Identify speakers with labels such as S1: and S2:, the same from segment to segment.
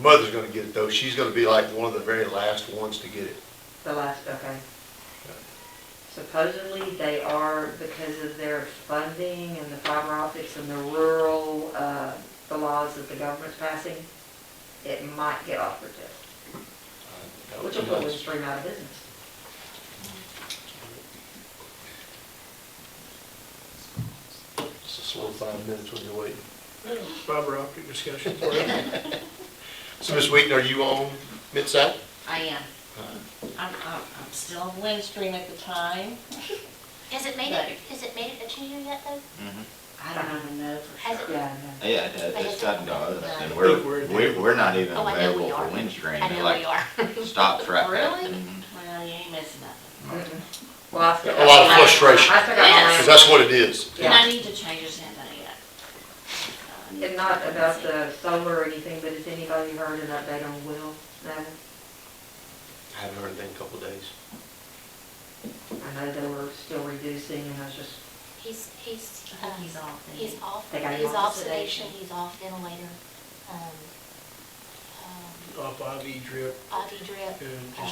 S1: mother's gonna get it though. She's gonna be like one of the very last ones to get it.
S2: The last, okay. Supposedly, they are, because of their funding and the fiber optics and the rural, uh, the laws that the government's passing, it might get offered to,
S1: Uh,
S2: which will put Windstream out of business.
S1: It's a slow five minutes when you're waiting.
S3: Fiber optic discussion for you.
S1: So Ms. Wheaton, are you on Mid-South?
S4: I am. I'm, I'm, I'm still on Windstream at the time.
S5: Has it made it, has it made it to you yet though?
S4: I
S2: Uh-huh.
S4: don't even know for
S5: Has
S4: sure.
S5: it-
S2: Yeah, I know.
S6: Yeah, it has, it's gotten done, and
S3: I
S6: we're,
S3: think we're at the-
S6: we're, we're not even
S5: Oh, I know we
S6: available
S5: are.
S6: for Windstream.
S5: I know
S6: Like, Mm-hmm.
S5: we are.
S6: Stops right there.
S5: Really?
S4: Well, you ain't missing nothing.
S2: Mhm. Well, I
S1: A
S2: still.
S1: lot of frustration,
S2: I still got my
S1: because
S2: land.
S1: that's what it is.
S4: And I
S2: Yeah.
S4: need to change his handle yet. Uh, I need
S2: And
S4: to-
S2: not about the solar or anything, but has anybody heard an update on Will? No?
S1: I haven't heard anything in a couple of days.
S2: I know they were still reducing, and I was just,
S5: He's, he's,
S4: I
S5: uh,
S4: think he's off. and-
S5: he's off,
S2: They got him
S5: he's
S2: off
S5: off
S2: sedation.
S5: sedation, he's off ventilator. Um, um,
S3: Off IV drip,
S5: IV drip.
S3: and
S5: um,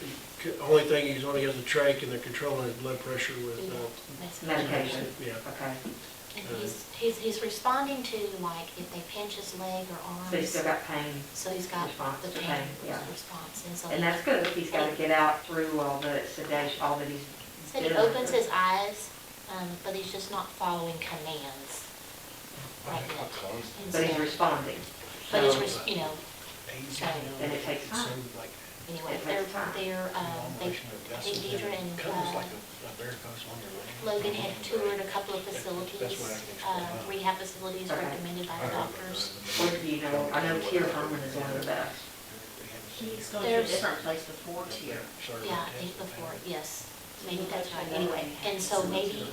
S3: just, the only thing he's on, he has a trach, and they're controlling his blood pressure with, uh,
S5: that's-
S2: Medication.
S3: yeah.
S2: okay,
S5: And he's, he's, he's responding to like if they pinch his leg or
S2: so he's still
S5: arms.
S2: got pain,
S5: So he's got
S2: response
S5: the
S2: to
S5: pain
S2: pain, yeah.
S5: response and so.
S2: and that's good, if he's gotta get out through all the sedation, all that he's
S5: Said he
S2: doing.
S5: opens his eyes, um, but he's just not following commands right yet. And
S2: But he's
S5: so-
S2: responding,
S5: But it's, res- you know,
S2: and it takes time.
S5: anyway,
S2: It
S5: they're,
S2: takes time.
S5: they're, um, they, I think Deidre and, uh, Logan had toured a couple of facilities, uh, rehab facilities
S2: Okay.
S5: recommended by the doctors.
S2: Where do you know, I know Tier Herman is one of the best,
S4: He's going to a
S5: There's-
S4: different place before tier.
S5: Yeah, I think before, yes, maybe that's right, anyway, and so maybe,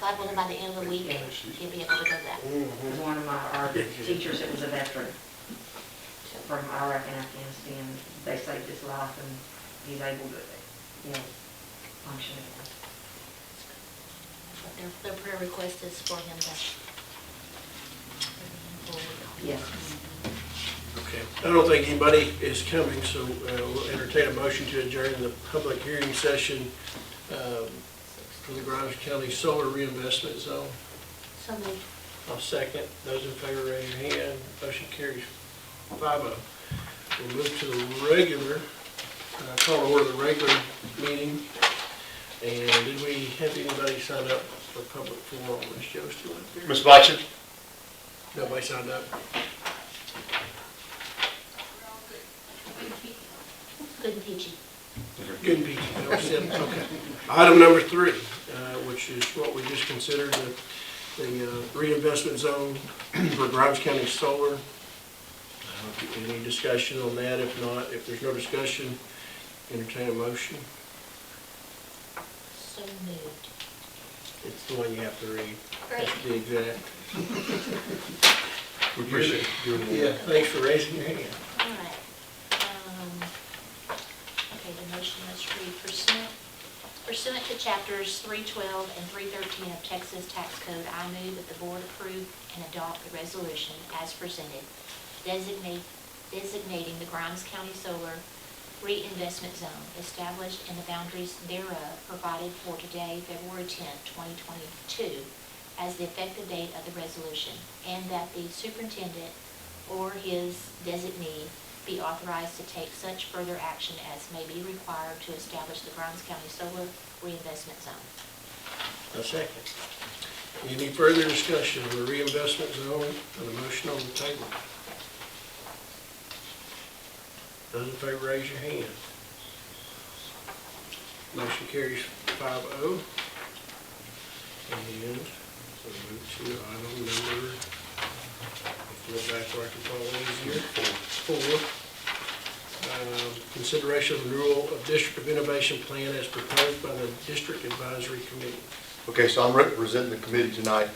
S5: God willing, by the end of the week, you'll be able to go back.
S2: was one of my, our teachers that was a veteran from Iraq and Afghanistan, they saved his life, and he's able to, you know, function again.
S5: Their, their prayer request is for him to.
S2: Yes.
S3: Okay. I don't think anybody is coming, so uh, we'll entertain a motion to adjourn the public hearing session um, for the Grimes County Solar Reinvestment Zone.
S5: So moved.
S3: I'll second. Those in favor, raise your hand. Motion carries five oh. We'll move to the regular, uh, call to order the regular meeting. And did we have anybody sign up for public forum? Was Joe still up there?
S1: Ms. Blatchett?
S3: Nobody signed up?
S5: Good and peachy.
S3: Good and peachy, that was it, okay. Item number three, uh, which is what we just considered, the- the uh, reinvestment zone for Grimes County Solar. Uh, Any discussion on that? If not, if there's no discussion, entertain a motion.
S5: So moved.
S3: It's the one you have to read.
S5: Great.
S3: The exact.
S1: We appreciate you doing
S3: Yeah,
S1: that.
S3: thanks for raising your hand.
S5: All right. Um, Okay, the motion is read pursuant, pursuant to chapters 312 and 313 of Texas Tax Code, I move that the board approve and adopt the resolution as presented, designate, designating the Grimes County Solar Reinvestment Zone established and the boundaries thereof provided for today, February 10, 2022, as the effective date of the resolution, and that the superintendent or his designee be authorized to take such further action as may be required to establish the Grimes County Solar Reinvestment Zone.
S3: A second. Any further discussion on the reinvestment zone and the motion on the table? Those in favor, raise your hand. Motion carries five oh. And we move to item number, if you look back where I can follow these here, four. Um, Consideration of renewal of District of Innovation Plan as proposed by the District Advisory Committee.
S1: Okay, so I'm representing the committee tonight.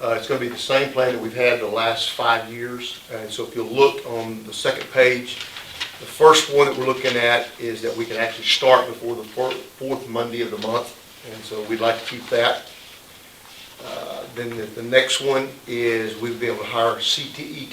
S1: Uh, It's going to be the same plan that we've had the last five years. And so if you look on the second page, the first one that we're looking at is that we can actually start before the fir- fourth Monday of the month. And so we'd like to keep that. Uh, Then the- the next one is we'd be able to hire CTE